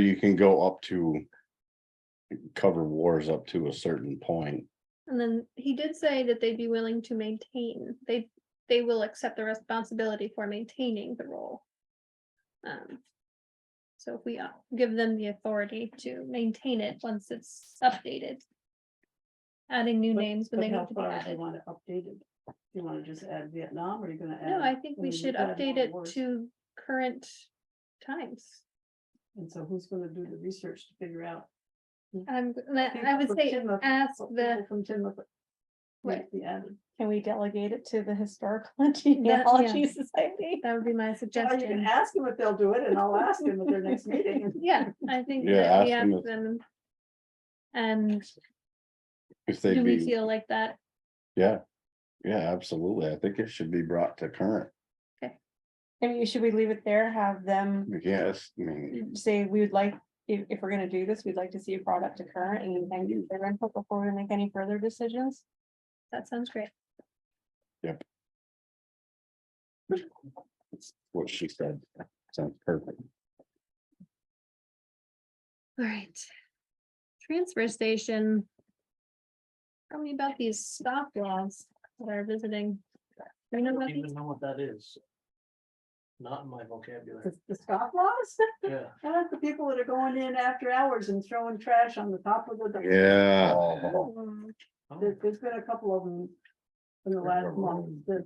You can go up to. Cover wars up to a certain point. And then he did say that they'd be willing to maintain, they, they will accept the responsibility for maintaining the role. Um, So if we uh, give them the authority to maintain it once it's updated. Adding new But- names when But they how need to be far do you added. want it updated? Do you wanna just add Vietnam, or are you gonna add? No, I think we mean, should you've got update more it wars. to current times. And so who's gonna do the research to figure out? Um, and I I People would from say, Timbuk- ask what the, people From Timbuk. Right. Right, the added. Can we delegate it to the Historical yeah. Genealogy Society? that would be my Or you can suggestion. ask them if they'll do it, and I'll ask them at their next meeting. Yeah, I think Yeah, that we ask them ask if- them. And If do they'd we be, feel like that yeah. Yeah, absolutely. I think it should be brought to current. I mean, should we leave it there, have them Yes, I mean, say, we would like, if, if we're gonna do this, we'd like to see it brought up to current and thank you for their input before we make any further decisions? That sounds great. what she said sounds perfect. All right. Transfer station. Tell me about these stop laws that are visiting. Do you know about don't even these? know what that is. Not in my vocabulary, The the scoff laws, yeah. that's the people that are going in after hours and throwing trash on the top of the. Yeah. Um, Oh, There, has been a couple of them in the last month that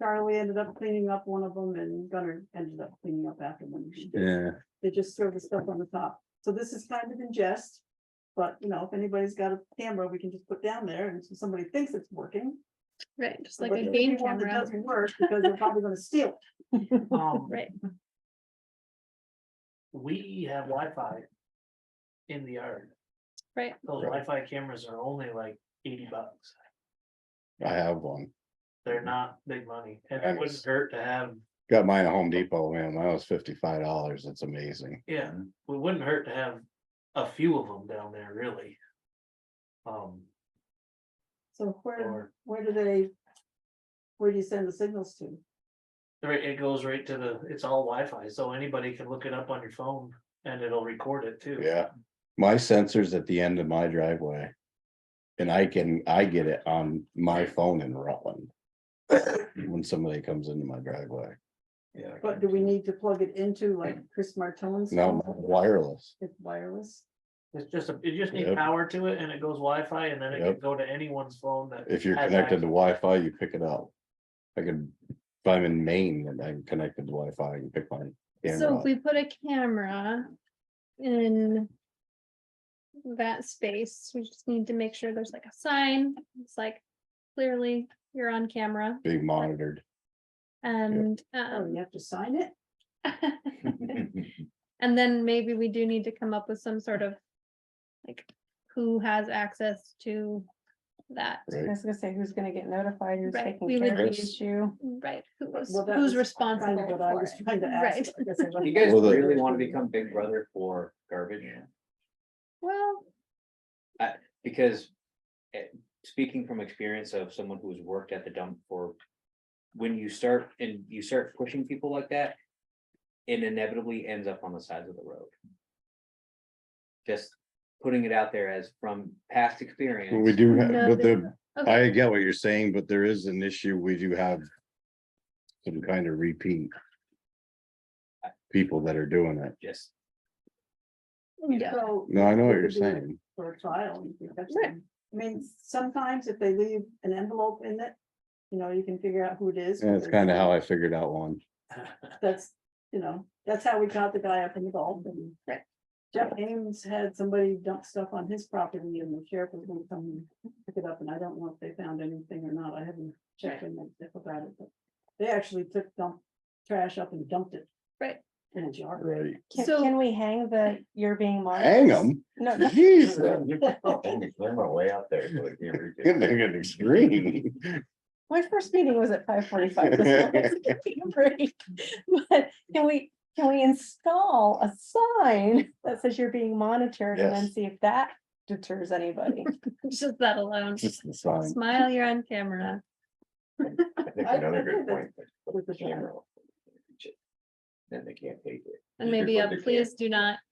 Charlie ended up cleaning up one of them and Gunner ended up cleaning up after them. Yeah, They just throw the stuff on the top. So this is kind of in jest. But you know, if anybody's got a camera, we can just put down there and so somebody thinks it's working. Right, just but like a there's gonna be game one that camera, Doesn't work because they're probably gonna steal. it. um, right? We have Wi-Fi in the yard. Right. Those Wi-Fi cameras are only like eighty bucks. I have one. They're not big money and And it wouldn't it's- hurt to have, Got mine at Home Depot, man. Mine was fifty-five dollars. It's amazing. yeah, it wouldn't hurt to have a few of them down there really. Um, So where, or, where do they? Where do you send the signals to? right, it goes right to the, it's all Wi-Fi, so anybody can look it up on your phone and it'll record it too. Yeah, my sensor's at the end of my driveway. And I can, I get it on my phone in Rutland. When somebody comes into my driveway. Yeah. I But do can- we need to plug it into like Chris Martone's? Now phone? wireless. It's wireless. It's just, a it just needs Yep. power to it and it goes Wi-Fi, and then it can Yep. go to anyone's phone that. If you're has connected to access. Wi-Fi, you pick it up. I could, if I'm in Maine and I'm connected to Wi-Fi, I can pick my So camera if up. we put a camera in that space, we just need to make sure there's like a sign. It's like clearly you're on camera being monitored. and Oh, um, you have to sign it? And then maybe we do need to come up with some sort of, like, who has access to that, I Right, was gonna say, who's gonna get notified, who's Right, taking we care of would the be- issue? right? Who was, Well, that who's was kind of responsible what I for was it? trying to ask. Right. I guess I You wasn't- guys Well, the- really want to become big brother for garbage? Well, Because eh, speaking from experience of someone who's worked at the dump for. When you start and you start pushing people like that. It inevitably ends up on the sides of the road. Just putting it out there as from past experience. But we do, have, No, but there's the, I get what you're saying, but there is an issue. We do have. Some kind of repeat. People that are doing it. Just, yeah, So, No, I know what It you're could be- saying. for a trial, you could catch Right. them. I mean, sometimes if they leave an envelope in it, you know, you can figure out who it is. And it's kind of how I figured out one. That's, you know, that's how we got the guy up in the Gulf and. Right. Jeff Ames had somebody dump stuff on his property and the sheriff was gonna come and pick it up and I don't know if they found anything or not. I haven't checked in that stuff about it, but. They actually took dump trash up and dumped it. Right. In a jar. Right. Can, So- can we hang the, you're being monitored? Hang them. No, no, Jeez. way out there. Good thing it's extreme. my first meeting was at five forty-five. this morning, so give me a break. But Can we, can we install a sign that says you're being monitored and then Yes. see if that deters anybody? just that alone. Just the sign. Smile, you're on camera. another good point. With the camera. then they can't pay for it. And Here's maybe what a they can. uh, please do not